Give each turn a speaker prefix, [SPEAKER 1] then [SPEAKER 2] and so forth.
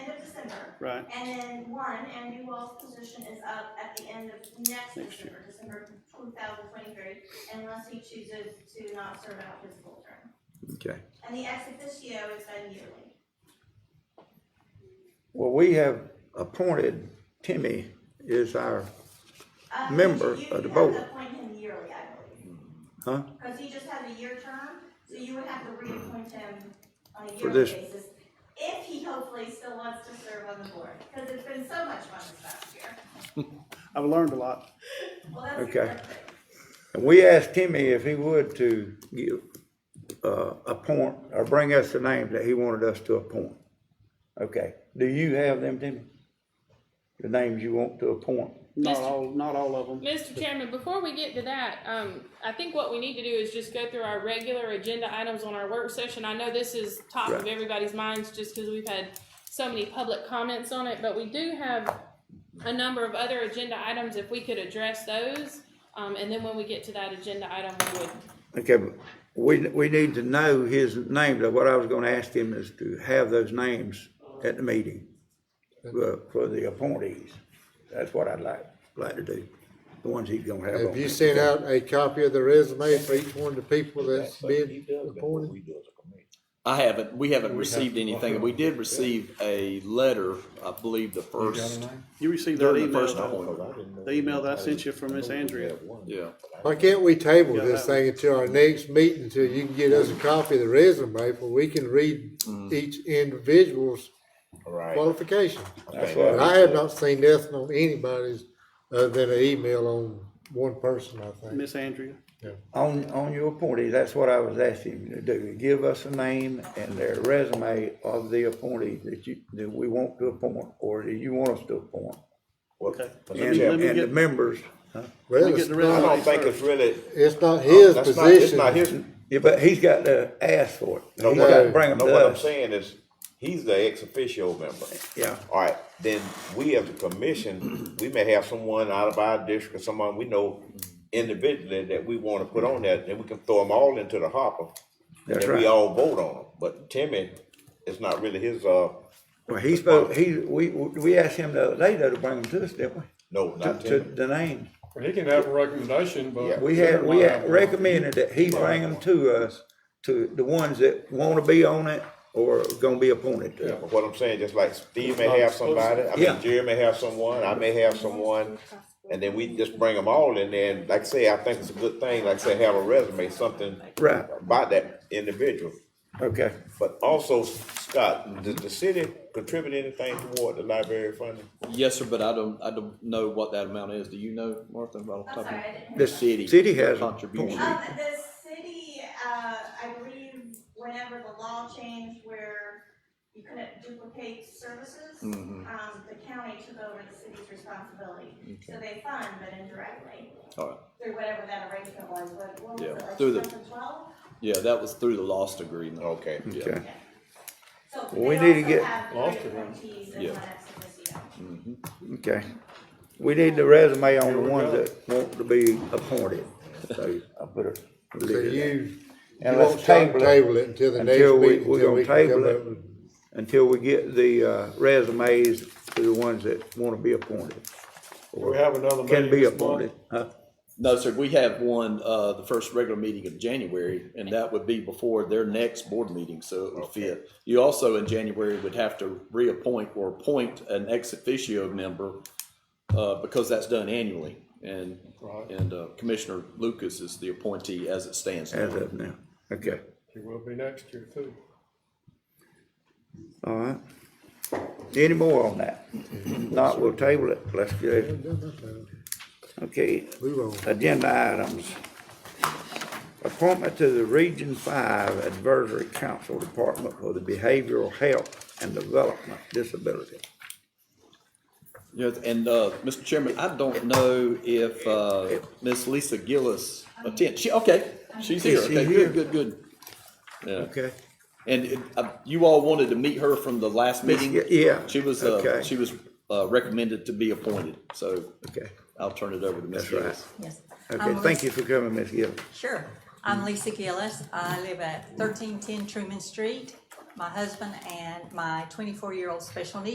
[SPEAKER 1] Right,
[SPEAKER 2] And then one, and you all's position is up at the end of next December, December two thousand twenty-three, unless he chooses to not serve out his full term.
[SPEAKER 3] Okay.
[SPEAKER 2] And the ex officio is done yearly.
[SPEAKER 3] Well, we have appointed Timmy is our,
[SPEAKER 2] Uh, you-
[SPEAKER 3] Member
[SPEAKER 2] you
[SPEAKER 3] of the
[SPEAKER 2] have to
[SPEAKER 3] board.
[SPEAKER 2] Appoint him yearly, I believe,
[SPEAKER 3] huh?
[SPEAKER 2] because he just has a year term, so you would have to reappoint him on a
[SPEAKER 3] For
[SPEAKER 2] yearly
[SPEAKER 3] this-
[SPEAKER 2] basis. If he hopefully still wants to serve on the board, because it's been so much fun this past year.
[SPEAKER 1] I've learned a lot.
[SPEAKER 2] Well, that's.
[SPEAKER 3] Okay.
[SPEAKER 2] perfect.
[SPEAKER 3] And we asked Timmy if he would to give, uh, appoint or bring us the names that he wanted us to appoint. Okay, do you have them, Timmy? The names you want to appoint?
[SPEAKER 1] Not
[SPEAKER 4] Mr.
[SPEAKER 1] all, not all of them.
[SPEAKER 4] Mr. Chairman, before we get to that, um, I think what we need to do is just go through our regular agenda items on our work session. I know this is top of
[SPEAKER 3] Right.
[SPEAKER 4] everybody's minds just because we've had so many public comments on it, but we do have a number of other agenda items, if we could address those. Um, and then when we get to that agenda item, we would,
[SPEAKER 3] Okay, but we, we need to know his name, Now, what I was gonna ask him is to have those names at the meeting for, for the appointees. That's what I'd like, like to do, the ones he's gonna have
[SPEAKER 5] Have
[SPEAKER 3] on.
[SPEAKER 5] you sent out a copy of the resume for each one of the people that's been appointed?
[SPEAKER 6] Well,
[SPEAKER 7] I haven't, we haven't received anything. We did receive a letter, I believe the first,
[SPEAKER 1] You received that
[SPEAKER 7] during the
[SPEAKER 1] email,
[SPEAKER 7] first
[SPEAKER 1] though.
[SPEAKER 7] appointment.
[SPEAKER 1] The email that I sent you from Miss Andrea.
[SPEAKER 7] Yeah.
[SPEAKER 5] Why can't we table
[SPEAKER 1] Yeah,
[SPEAKER 5] this
[SPEAKER 1] that-
[SPEAKER 5] thing until our next meeting, until you can get us a copy of the resume, where we can read each individual's
[SPEAKER 6] Right.
[SPEAKER 5] qualifications?
[SPEAKER 6] That's
[SPEAKER 3] what
[SPEAKER 5] And I have not seen nothing on anybody's, other than an email on one person, I think.
[SPEAKER 1] Miss Andrea.
[SPEAKER 3] On, on your appointees, that's what I was asking you to do, give us a name and their resume of the appointee that you, that we want to appoint, or that you want us to appoint.
[SPEAKER 1] Okay.
[SPEAKER 3] And,
[SPEAKER 1] Let me
[SPEAKER 3] and the
[SPEAKER 1] get-
[SPEAKER 3] members,
[SPEAKER 5] Well,
[SPEAKER 1] me get
[SPEAKER 5] it's
[SPEAKER 1] the
[SPEAKER 6] I
[SPEAKER 1] resume.
[SPEAKER 5] not,
[SPEAKER 6] don't think it's really.
[SPEAKER 5] it's
[SPEAKER 3] Oh,
[SPEAKER 5] not his
[SPEAKER 6] that's not- it's
[SPEAKER 5] position.
[SPEAKER 6] not his-
[SPEAKER 3] yeah, but he's got to ask for it,
[SPEAKER 6] No,
[SPEAKER 3] he's got to
[SPEAKER 5] no,
[SPEAKER 3] bring them
[SPEAKER 6] no,
[SPEAKER 3] to
[SPEAKER 6] what I'm
[SPEAKER 3] us,
[SPEAKER 6] saying is, he's the ex officio member.
[SPEAKER 3] yeah.
[SPEAKER 6] All right, then we as a commission, we may have someone out of our district or someone we know individually that we wanna put on that, then we can throw them all into the hopper.
[SPEAKER 3] That's
[SPEAKER 6] And we
[SPEAKER 3] right.
[SPEAKER 6] all vote on them, but Timmy, it's not really his, uh,
[SPEAKER 3] Well, he's supposed, he, we, we asked him the other day though to bring them to us, didn't we?
[SPEAKER 6] no,
[SPEAKER 3] To,
[SPEAKER 6] not
[SPEAKER 3] to
[SPEAKER 6] Timmy.
[SPEAKER 3] the name.
[SPEAKER 8] Well, he can have a recommendation,
[SPEAKER 6] Yeah.
[SPEAKER 8] but.
[SPEAKER 3] We had, we had recommended that he bring them to us, to the ones that wanna be on it or gonna be appointed to it.
[SPEAKER 6] But What I'm saying, just like Steve may have somebody, I
[SPEAKER 3] Yeah.
[SPEAKER 6] mean, Jerry may have someone, I may have someone, and then we just bring them all in there, and like I say, I think it's a good thing, like I say, have a resume, something
[SPEAKER 3] Right,
[SPEAKER 6] about that individual.
[SPEAKER 3] okay.
[SPEAKER 6] But also, Scott, does the city contribute anything toward the library funding?
[SPEAKER 7] Yes, sir, but I don't, I don't know what that amount is. Do you know, Martha, about the
[SPEAKER 2] I'm
[SPEAKER 7] top of
[SPEAKER 2] sorry, I
[SPEAKER 7] your-
[SPEAKER 2] didn't. hear
[SPEAKER 3] The
[SPEAKER 2] that.
[SPEAKER 7] City
[SPEAKER 3] city has a
[SPEAKER 7] contribution.
[SPEAKER 3] point.
[SPEAKER 2] Um, the city, uh, I believe whenever the law changed where you couldn't duplicate services,
[SPEAKER 7] Mm-hmm.
[SPEAKER 2] um, the county took over the city's responsibility. So they fund, but indirectly,
[SPEAKER 7] All right.
[SPEAKER 2] through whatever that arrangement was, but what was
[SPEAKER 7] Yeah,
[SPEAKER 2] it, like
[SPEAKER 7] through the-
[SPEAKER 2] 2012?
[SPEAKER 7] Yeah, that was through the lost agreement.
[SPEAKER 6] Okay.
[SPEAKER 7] Yeah.
[SPEAKER 3] Okay.
[SPEAKER 2] So
[SPEAKER 3] We
[SPEAKER 2] they
[SPEAKER 3] need to
[SPEAKER 2] also
[SPEAKER 3] get-
[SPEAKER 2] have
[SPEAKER 8] Lost
[SPEAKER 2] three
[SPEAKER 8] it, huh?
[SPEAKER 2] appointees and
[SPEAKER 7] Yeah.
[SPEAKER 2] one ex officio.
[SPEAKER 7] Mm-hmm.
[SPEAKER 3] Okay. We need the resume on
[SPEAKER 8] Here
[SPEAKER 3] the
[SPEAKER 8] we
[SPEAKER 3] ones
[SPEAKER 8] go.
[SPEAKER 3] that want to be appointed. So I put a.
[SPEAKER 5] So you,
[SPEAKER 3] And
[SPEAKER 5] you
[SPEAKER 3] let's
[SPEAKER 5] won't try to
[SPEAKER 3] table it
[SPEAKER 5] table it until the next
[SPEAKER 3] until we-
[SPEAKER 5] meeting,
[SPEAKER 3] we're
[SPEAKER 5] until
[SPEAKER 3] gonna
[SPEAKER 5] we can
[SPEAKER 3] table
[SPEAKER 5] come
[SPEAKER 3] it.
[SPEAKER 5] up with.
[SPEAKER 3] Until we get the, uh, resumes to the ones that wanna be appointed,
[SPEAKER 8] We have another meeting.
[SPEAKER 3] can be
[SPEAKER 8] this month.
[SPEAKER 3] appointed. Huh?
[SPEAKER 7] No, sir, we have one, uh, the first regular meeting of January, and that would be before their next board meeting, so it would fit. You also in January would have to reappoint or appoint an ex officio member, uh, because that's done annually. And,
[SPEAKER 8] Right.
[SPEAKER 7] and uh, Commissioner Lucas is the appointee as it stands
[SPEAKER 3] As
[SPEAKER 7] now.
[SPEAKER 3] of now, okay,
[SPEAKER 8] It will be next year too.
[SPEAKER 3] all right. Any more on that? Not, we'll table it, let's do, okay,
[SPEAKER 5] Move on.
[SPEAKER 3] agenda items. Appointment to the Region Five Advisory Council Department for the Behavioral Health and Development Disability.
[SPEAKER 7] Yes, and, uh, Mr. Chairman, I don't know if, uh, Ms. Lisa Gillis attends. She, okay, she's here.
[SPEAKER 3] Is she
[SPEAKER 7] Okay,
[SPEAKER 3] here?
[SPEAKER 7] good, good, good. Yeah.
[SPEAKER 3] Okay.
[SPEAKER 7] And it- uh, you all wanted to meet her from the last meeting?
[SPEAKER 3] y- yeah,
[SPEAKER 7] She was,
[SPEAKER 3] okay.
[SPEAKER 7] uh, she was uh, recommended to be appointed, so
[SPEAKER 3] Okay,
[SPEAKER 7] I'll turn it over to Ms.
[SPEAKER 3] That's right.
[SPEAKER 7] Gillis.
[SPEAKER 9] Yes.
[SPEAKER 3] okay, thank you for coming, Ms. Gill.
[SPEAKER 9] Sure. I'm Lisa Gillis. I live at thirteen ten Truman Street. My husband and my twenty-four-year-old special needs